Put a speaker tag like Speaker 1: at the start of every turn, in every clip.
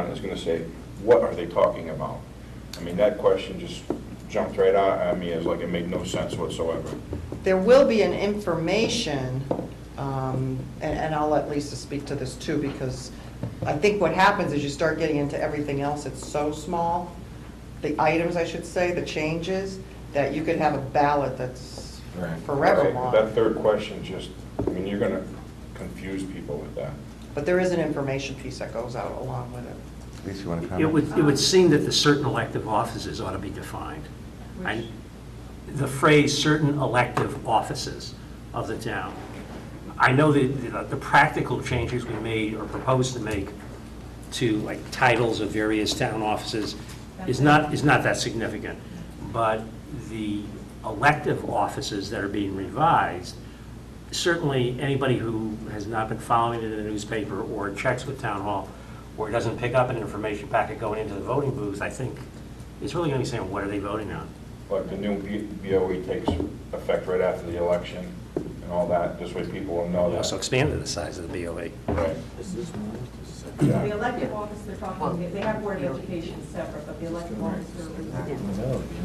Speaker 1: is going to say, what are they talking about? I mean, that question just jumped right out at me as like it made no sense whatsoever.
Speaker 2: There will be an information, um, and and I'll let Lisa speak to this too, because I think what happens is you start getting into everything else, it's so small, the items, I should say, the changes, that you could have a ballot that's
Speaker 3: Right.
Speaker 2: forever
Speaker 1: Right, That
Speaker 2: long.
Speaker 1: third question just, I mean, you're going to confuse people with that.
Speaker 2: But there is an information piece that goes out along with it.
Speaker 3: Lisa, you want to
Speaker 4: It
Speaker 3: comment?
Speaker 4: would, it would seem that the certain elective offices ought to be defined. I- The phrase "certain elective offices of the town." I know that the practical changes we made or proposed to make to like titles of various town offices is not, is not that significant. But the elective offices that are being revised, certainly anybody who has not been following it in the newspaper or checks with town hall or doesn't pick up an information packet going into the voting booth, I think, is really going to be saying, what are they voting on?
Speaker 1: Like the new B- BOE takes effect right after the election and all that, this way people will know
Speaker 4: We also
Speaker 1: that.
Speaker 4: expanded the size of the BOA.
Speaker 1: Right.
Speaker 5: The
Speaker 1: Yeah.
Speaker 5: elective office, they're talking, they have board of education separate, but the elective office, they're-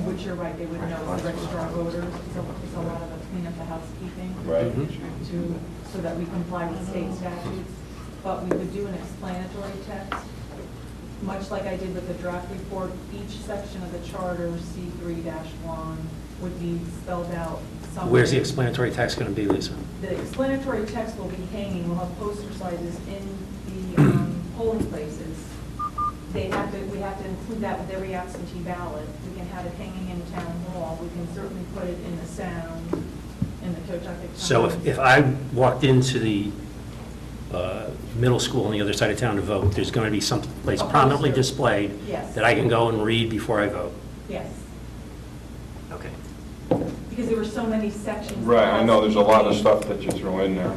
Speaker 5: which you're right, they would know the registrar of voters, so it's a lot of the cleanup, the housekeeping,
Speaker 1: Right.
Speaker 5: to, so that we comply with state statutes. But we would do an explanatory text, much like I did with the draft report, each section of the charter, C three one, would be spelled out somewhere.
Speaker 4: Where's the explanatory text going to be, Lisa?
Speaker 5: The explanatory text will be hanging, we'll have poster sizes in the um, polling places. They have to, we have to include that with every absentee ballot. We can have it hanging in town hall, we can certainly put it in the sound, in the Tochactic Times.
Speaker 4: So if, if I walked into the uh, middle school on the other side of town to vote, there's going to be some place
Speaker 5: A poster.
Speaker 4: prominently displayed
Speaker 5: Yes.
Speaker 4: that I can go and read before I vote.
Speaker 5: Yes,
Speaker 4: Okay.
Speaker 5: because there were so many sections.
Speaker 1: Right, I know, there's a lot of stuff that you throw in there.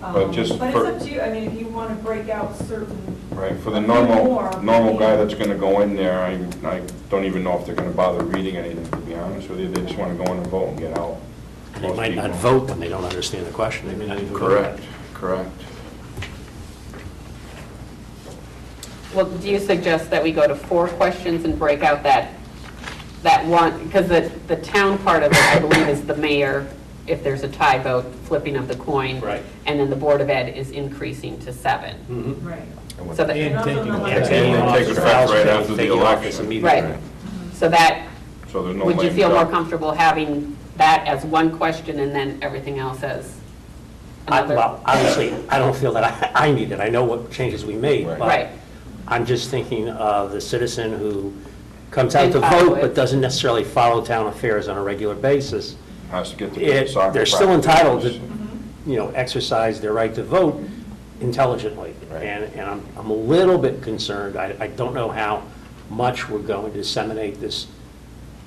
Speaker 1: But
Speaker 5: Um,
Speaker 1: just
Speaker 5: But it's
Speaker 1: for-
Speaker 5: up to you, I mean, if you want to break out certain.
Speaker 1: Right, for the
Speaker 5: More,
Speaker 1: normal, normal guy
Speaker 5: yeah.
Speaker 1: that's gonna go in there, I, I don't even know if they're gonna bother reading anything, to be honest with you, they just wanna go in and vote and get out.
Speaker 4: They might not
Speaker 1: Most
Speaker 4: vote when they don't understand the question. They may not even
Speaker 1: people.
Speaker 4: vote.
Speaker 1: Correct, correct.
Speaker 6: Well, do you suggest that we go to four questions and break out that, that one? Because the, the town part of it, I believe, is the mayor, if there's a tie vote, flipping of the coin.
Speaker 4: Right.
Speaker 6: And then the Board of Ed is increasing to seven.
Speaker 4: Mhm.
Speaker 5: Right.
Speaker 6: So that,
Speaker 5: And taking
Speaker 4: And
Speaker 5: effect.
Speaker 4: taking
Speaker 1: They take
Speaker 4: office,
Speaker 1: effect
Speaker 4: files,
Speaker 1: right after the
Speaker 4: taking office
Speaker 1: election.
Speaker 4: immediately.
Speaker 6: right. So that,
Speaker 1: So there's no.
Speaker 6: would you
Speaker 1: lame
Speaker 6: feel more
Speaker 1: duck.
Speaker 6: comfortable having that as one question and then everything else as
Speaker 4: I-
Speaker 6: another?
Speaker 4: Well, obviously, I don't feel that I I need it, I know what changes we made,
Speaker 3: Right.
Speaker 4: but
Speaker 6: Right.
Speaker 4: I'm just thinking of the citizen who comes out to
Speaker 6: Didn't follow
Speaker 4: vote
Speaker 6: it.
Speaker 4: but doesn't necessarily follow town affairs on a regular basis.
Speaker 1: Has to get to
Speaker 4: It-
Speaker 1: soccer.
Speaker 4: They're still
Speaker 1: practice.
Speaker 4: entitled to, you know, exercise their right to vote intelligently.
Speaker 3: Right.
Speaker 4: And, and I'm, I'm a little bit concerned, I, I don't know how much we're going to disseminate this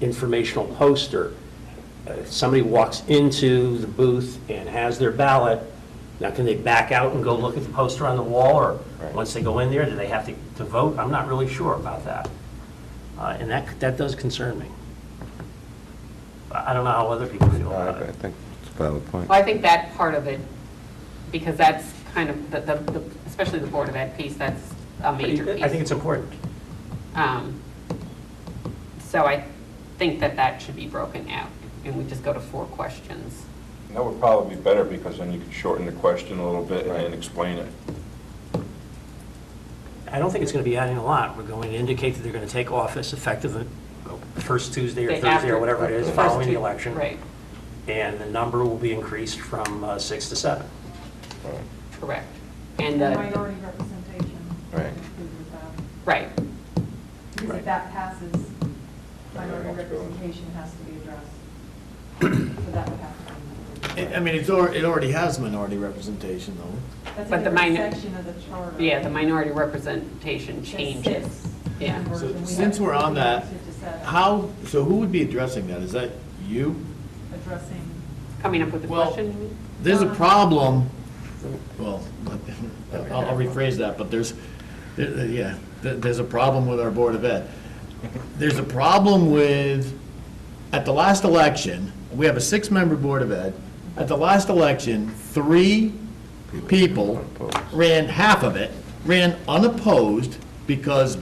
Speaker 4: informational poster. Uh, if Somebody walks into the booth and has their ballot, now can they back out and go look at the poster on the wall? Or,
Speaker 3: Right.
Speaker 4: once they go in there, do they have to, to vote? I'm not really sure about that. Uh, And that, that does concern me. I I don't know how other people feel
Speaker 3: No,
Speaker 4: about
Speaker 3: I I
Speaker 4: it.
Speaker 3: think it's a valid point.
Speaker 6: Well, I think that part of it, because that's kind of, the- the, the- especially the Board of Ed piece, that's a major piece.
Speaker 4: I think it's important.
Speaker 6: Um, So I think that that should be broken out, and we just go to four questions.
Speaker 1: That would probably be better, because then you could shorten the question a little bit and then explain it.
Speaker 4: I don't think it's going to be adding a lot. We're going to indicate that they're going to take office effective uh, first Tuesday or
Speaker 6: They-
Speaker 4: Thursday
Speaker 6: after-
Speaker 4: or whatever it is
Speaker 6: First
Speaker 4: following the
Speaker 6: two-
Speaker 4: election.
Speaker 6: Right,
Speaker 4: And the number will be increased from uh, six to seven.
Speaker 6: correct.
Speaker 5: And
Speaker 6: And, uh,
Speaker 5: minority representation.
Speaker 3: Right.
Speaker 5: Included with that.
Speaker 6: right,
Speaker 5: Because
Speaker 4: Right.
Speaker 5: if that passes,
Speaker 1: Everyone
Speaker 5: minority
Speaker 1: else goes.
Speaker 5: representation has to be addressed. So that would have to come.
Speaker 7: I I mean, it's, al- it already has minority representation, though.
Speaker 5: That's
Speaker 6: But
Speaker 5: a
Speaker 6: the
Speaker 5: different
Speaker 6: minor-
Speaker 5: section of the charter.
Speaker 6: yeah, the minority representation changes. Yeah.
Speaker 7: So since we're on that, How, so who would be addressing that? Is that you?
Speaker 5: Addressing,
Speaker 6: Coming up with a
Speaker 7: Well-
Speaker 6: question?
Speaker 7: There's a problem, well, I'll I'll rephrase that, but there's, there- there- yeah, there- there's a problem with our Board of Ed. There's a problem with, at the last election, we have a six-member Board of Ed. At the last election, three people ran half of it, ran unopposed, because